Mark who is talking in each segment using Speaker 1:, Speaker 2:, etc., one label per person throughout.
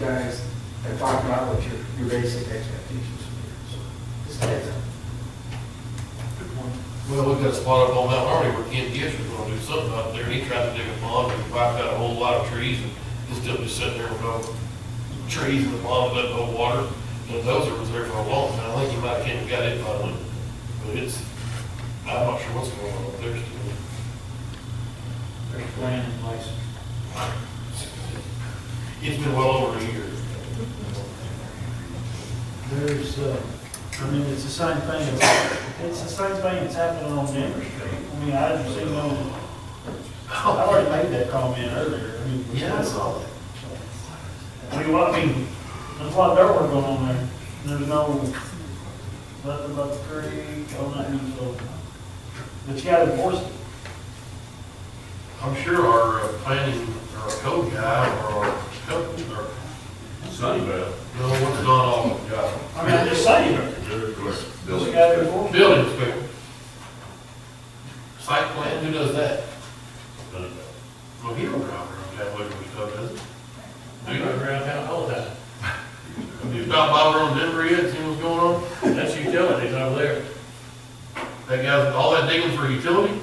Speaker 1: guys and talk about what your, your basic expectations are. So just heads up.
Speaker 2: Well, we got spot up on Mount Harmony where Ken Gish was gonna do something out there, and he tried to dig a pond, and wiped out a whole lot of trees, and it's still just sitting there with no trees in the pond, but no water, and those are there for a long time, I think you might have came and got it finally, but it's, I'm not sure what's going on up there still.
Speaker 3: There's a plan in place.
Speaker 2: It's been well over a year.
Speaker 3: There's, uh, I mean, it's the same thing, it's the same thing that's happening on Denver Street. I mean, I haven't seen no, I already made that comment earlier. I mean,
Speaker 2: all that.
Speaker 3: I mean, well, I mean, there's a lot of dirt work going on there. There's no, nothing but the creek, oh, nothing, so. But you gotta enforce it.
Speaker 2: I'm sure our uh, planning, or our code guy, or our, code- or,
Speaker 4: Sunbelt.
Speaker 2: no, it's not all, guy.
Speaker 3: I mean, I'm just saying,
Speaker 4: Billy.
Speaker 3: you gotta enforce it.
Speaker 2: Building inspector. Site plan, who does that? Well, he don't drive around that way when he does, does he? Do you?
Speaker 5: around town all the time.
Speaker 2: Have you stopped by around Denver yet, see what's going on?
Speaker 5: That's utilities over there.
Speaker 2: That guy's, all that digging for utility?
Speaker 5: Ut-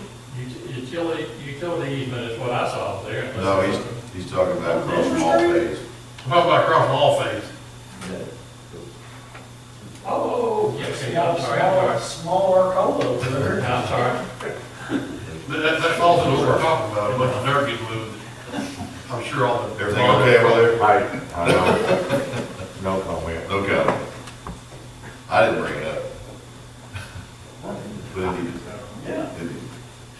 Speaker 5: Utility, utility easement is what I saw up there.
Speaker 4: No, he's, he's talking about across from all days.
Speaker 2: How about across from all phase?
Speaker 3: Oh,
Speaker 5: Yeah, okay,
Speaker 3: you got
Speaker 5: I'm sorry, I'm
Speaker 3: a small, small cola over there.
Speaker 5: I'm sorry.
Speaker 2: That, that- that's also what we're talking about, a bunch of dirt getting moved. I'm sure all the.
Speaker 4: Everything okay over there?
Speaker 6: I, I don't, no comment.
Speaker 4: Okay. I didn't bring it up. But he did.
Speaker 3: Yeah.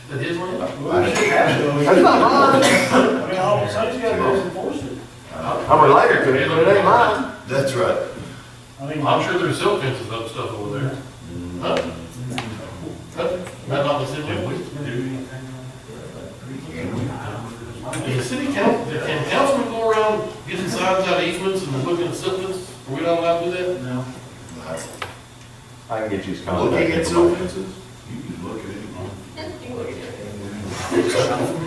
Speaker 2: That his land?
Speaker 4: I didn't.
Speaker 6: That's not mine.
Speaker 3: I mean, all of a sudden, you gotta go enforce it.
Speaker 6: I'm related to it, but it ain't mine.
Speaker 4: That's right.
Speaker 3: I mean,
Speaker 2: I'm sure there's silk fences up stuff over there. Huh? Huh? That not the city? Did the city council, can councilmen go around getting signs out of easements and looking at somethings? Are we not allowed to do that?
Speaker 3: no.
Speaker 6: I can get you his contact.
Speaker 4: Looking at
Speaker 6: information.
Speaker 4: silk fences? You can look at it.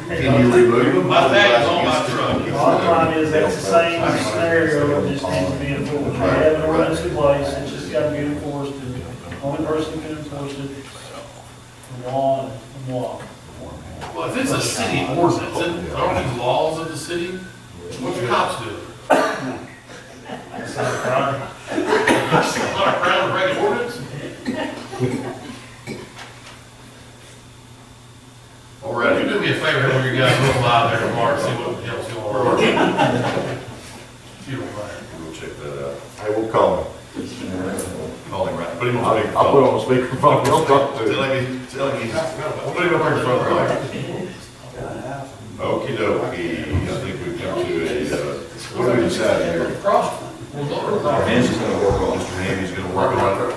Speaker 4: Can you remove them?
Speaker 2: My tag is on my
Speaker 3: The
Speaker 2: truck.
Speaker 3: bottom line is, that's the same scenario, it just needs to be enforced. We have an ordinance in place, it's just gotta be enforced, and the only person who can enforce it, is the law, and the law.
Speaker 2: Well, if it's a city ordinance, then aren't these laws of the city? What do cops do?
Speaker 3: That's not a crime.
Speaker 2: Not a crime to break an ordinance?
Speaker 4: All
Speaker 2: Well,
Speaker 4: right.
Speaker 2: you do me a favor, when you guys go by there tomorrow, see what the hell's going on. If you don't mind.
Speaker 4: We'll check that out.
Speaker 6: I will call him.
Speaker 4: Call him right, put him on
Speaker 6: I'll I'll put
Speaker 4: speakerphone.
Speaker 6: him on speakerphone, he'll talk to him.
Speaker 4: Tell him, tell him he's.
Speaker 2: Well,
Speaker 4: Put him up in front of him. Okey dokey, I think we've come to a, uh, what do we decide here?
Speaker 2: Cross. Well, don't-
Speaker 4: Hans is gonna work on, Mr. Ham, he's gonna work on it.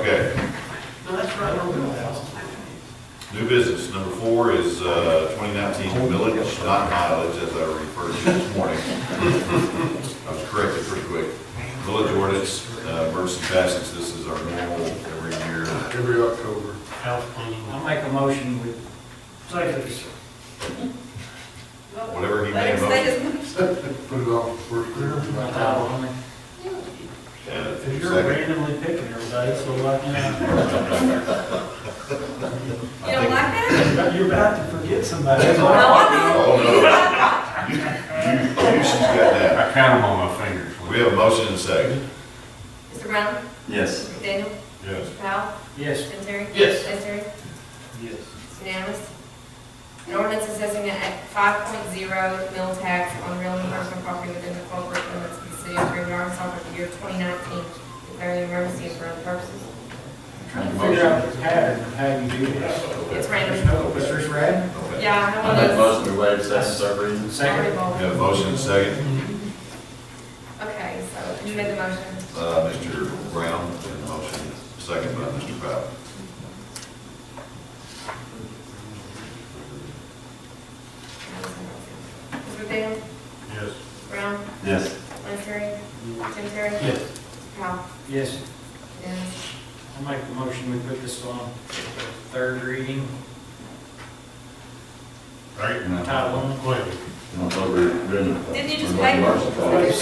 Speaker 4: Okay,
Speaker 2: No, that's right, don't do that.
Speaker 4: new business, number four is, uh, twenty nineteen millage, not mileage, as I referred to this morning. I was corrected pretty quick. Village ordinance, uh, emergency passage, this is our normal every year.
Speaker 2: Every October. House cleaning.
Speaker 7: I'll make a motion with,
Speaker 3: Second.
Speaker 4: Whatever he may have
Speaker 2: Put it on first
Speaker 7: title on it.
Speaker 4: Uh,
Speaker 3: If you're
Speaker 4: Second,
Speaker 3: randomly picking every day, so like, you know,
Speaker 8: You don't like that?
Speaker 3: you're about to forget somebody. That's
Speaker 8: No,
Speaker 3: why
Speaker 8: I
Speaker 4: oh, no, you, you, you, she's got that.
Speaker 6: I count him on my fingers.
Speaker 4: We have a motion and a second.
Speaker 8: don't. Mr. Brown?
Speaker 6: Yes.
Speaker 8: McDaniel?
Speaker 4: Yes.
Speaker 8: Powell?
Speaker 3: Yes.
Speaker 8: Jim Terry?
Speaker 2: Yes.
Speaker 8: Vice Terry?
Speaker 3: Yes.
Speaker 8: It's unanimous. An ordinance assessing a five point zero mill tax on real and personal property within the corporate limits of the city of Green, Arkansas for the year twenty nineteen, declaring an emergency and for other purposes.
Speaker 3: Trying to figure out the pattern of how you do this.
Speaker 8: It's
Speaker 4: Okay.
Speaker 8: random.
Speaker 3: Mr. Rad?
Speaker 4: Okay.
Speaker 8: Yeah, I know what
Speaker 6: to waive second, third reading.
Speaker 8: those.
Speaker 4: We have a motion and a second.
Speaker 8: Okay, so you made the motion.
Speaker 4: Uh, Mr. Brown, and motion, second by Mr. Powell.
Speaker 8: Mr. McDaniel?
Speaker 2: Yes.
Speaker 8: Brown?
Speaker 6: Yes.
Speaker 8: Vice Terry? Jim Terry?
Speaker 2: Yes.
Speaker 8: Powell?
Speaker 7: Yes,
Speaker 8: Yes.
Speaker 7: I'll make a motion, we put this on third reading,
Speaker 2: Right?
Speaker 7: title on it.
Speaker 2: Go ahead.
Speaker 8: Didn't you just wait?